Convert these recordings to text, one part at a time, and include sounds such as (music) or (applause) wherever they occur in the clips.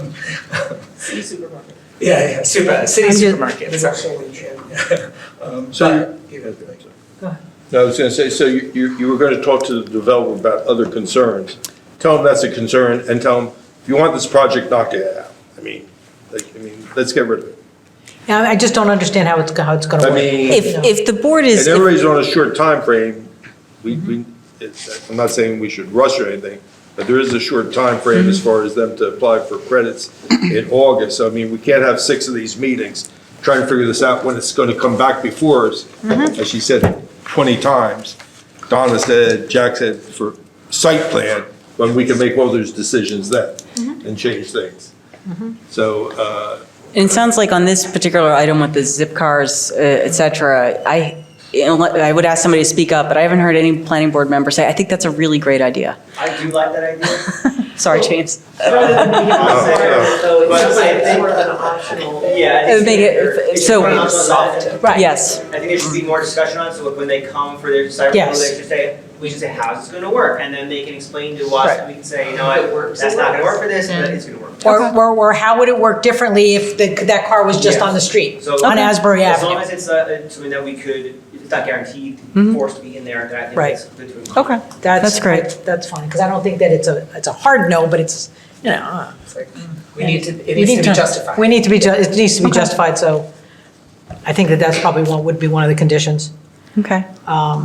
City supermarket. Yeah, yeah, super, uh, city I'm just- supermarket, sorry. (laughs) Um, So- but- yeah, No, I was gonna say, so you, you, you were gonna talk to the developer about other concerns. Tell them that's a concern and tell them, if you want this project, knock it out. I mean, like, I mean, let's get rid of it. Yeah, I just don't understand how it's, how it's gonna I work. mean- you know. If, if Mm-hmm. the board And is, everybody's on a short time frame. we, we, it's, I'm not saying we should rush or anything, but there is a short time frame Mm-hmm. as far as them to apply for credits in August. So I mean, we can't have six of these meetings, trying to figure this out when it's gonna come back before us. Mm-hmm. As she said twenty times, Donna said, Jack said, for site plan, when we can make all those decisions then Mm-hmm. and change things. So, uh, it sounds like on this particular item with the zip cars, uh, et cetera, I, I would ask somebody to speak up, but I haven't heard any planning board member say, I think that's a really great idea. I do like that idea. Sorry, James. Rather uh, than being on Oh, there, though, it's But just like, I it's think, sort of an optional. yeah. I It would think make it- they're- it's so- one of those that- Right. Yes. I think there should be more discussion on, it, so when they come for their site Yes. review, they should say, we should say, how's this gonna work? And then they can explain to us, and we can say, you know, It what, works, that's it not gonna works." work for this, but it's gonna work. Or, or, or how would it work differently if the, that car was just Yeah. on the street, So on Okay. Asbury as long Avenue? as it's uh, something that we could, it's not guaranteed, Mhm. forced to be in there, then I think Right. that's good to include. Okay. That's great. That's fine, because I don't think that it's a, it's a hard no, but it's, you know. uh, We need to, it we needs to need be justified. We need to be, ju- it needs to be Okay. justified, so I think that that's probably one, would be one of the conditions. Okay. Um,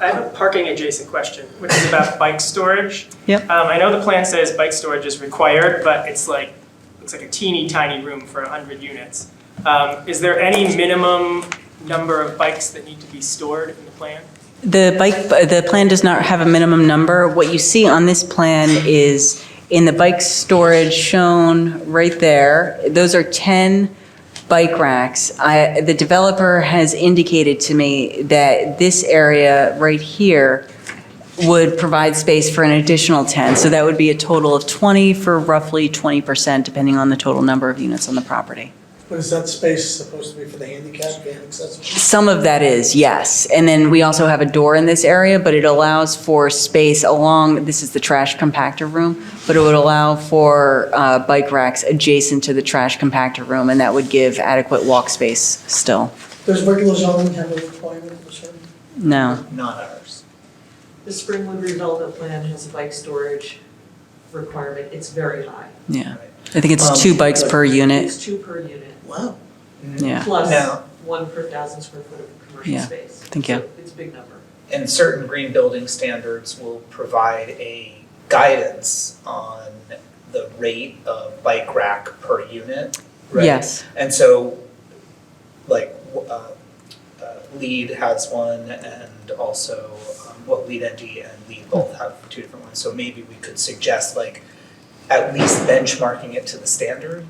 I have a parking adjacent question, which is about bike storage. Yep. Um, I know the plan says bike storage is required, but it's like, looks like a teeny tiny room for hundred units. Um, is there any minimum number of bikes that need to be stored in the plan? The bike, the plan does not have a minimum number. What you see on this plan is in the bike storage shown right there, those are 10 bike racks. I, the developer has indicated to me that this area right here would provide space for an additional 10. So that would be a total of 20 for roughly 20%, depending on the total number of units on the property. But is that space supposed to be for the handicap and accessible? Some of that is, yes. And then we also have a door in this area, but it allows for space along, this is the trash compactor room, but it would allow for uh, bike racks adjacent to the trash compactor room, and that would give adequate walk space still. Does regular zoning have a requirement of a certain? No. Not ours. The Springwood redevelopment plan has a bike storage requirement, it's very high. Yeah. I think Um, it's two bikes per unit, It's two per unit, Wow. yeah. plus No. one per thousand square foot of commercial Yeah. space. Thank you. So It's a big number. And certain green building standards will provide a guidance on the rate of bike rack per unit, right? Yes. And so, like, w- uh, uh, LEED has one, and also, um, well, LEED ND and LEED both have two different ones. So maybe we could suggest, like, at least benchmarking it to the standard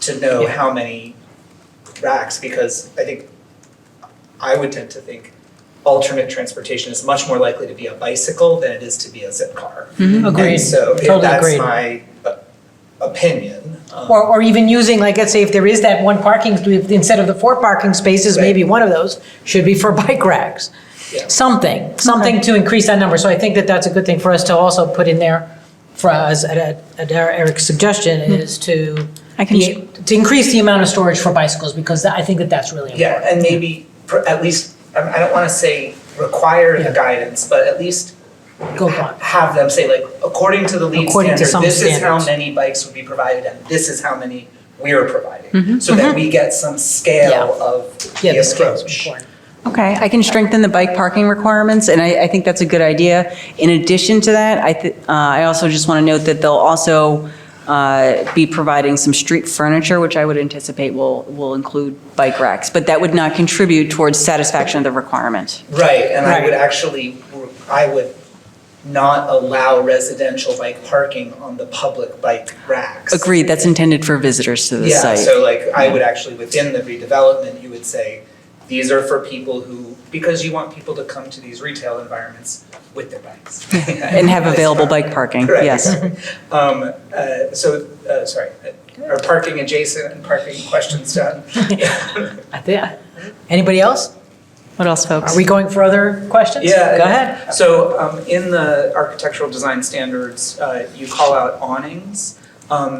to know how many racks, because I think, I would tend to think alternate transportation is much more likely to be a bicycle than it is to be a zip car. Agreed, And so, if totally that's agreed. my uh, opinion. um, Or, or even using, like, let's say if there is that one parking, instead of the four parking spaces, Right. maybe one of those should be for (laughs) bike racks. Yeah. Something, something to increase that number. So I think that that's a good thing for us to also put in there for us, at, at- at Eric's suggestion is to, Hmm. I can be- to increase the amount of storage for bicycles because I think that that's really important. Yeah, and maybe pr- at least, I I don't want to say require the Yeah. guidance, but at least Go ha- on. have them say like, according to the lead According to some standard, this is how standards. many bikes would be provided and this is how many we're providing. So that we get some scale of Mm-hmm, Yeah, the the scale's approach. important. Okay, I can strengthen the bike parking requirements, and I, I think that's a good idea. In addition to that, I, thi- uh, I also just want to note that they'll also uh, be providing some street furniture, which I would anticipate will, will include bike racks, but that would not contribute towards satisfaction of the requirement. Right, and I would Right. actually, I would not allow residential bike parking on the public bike racks. Agreed, that's intended for visitors to the Yeah, site. so like, I would actually, within the redevelopment, you would say, these are for people who, because you want people to come to these retail environments with their (laughs) bikes. And (laughs) have available bike parking, Correct, yes. exactly. (laughs) Um, uh, so, uh, sorry, uh, are parking adjacent and parking questions done? I think, anybody else? What else, folks? Are we going for other questions? Yeah. Go ahead. So um, in the architectural design standards, uh, you call out awnings. Um,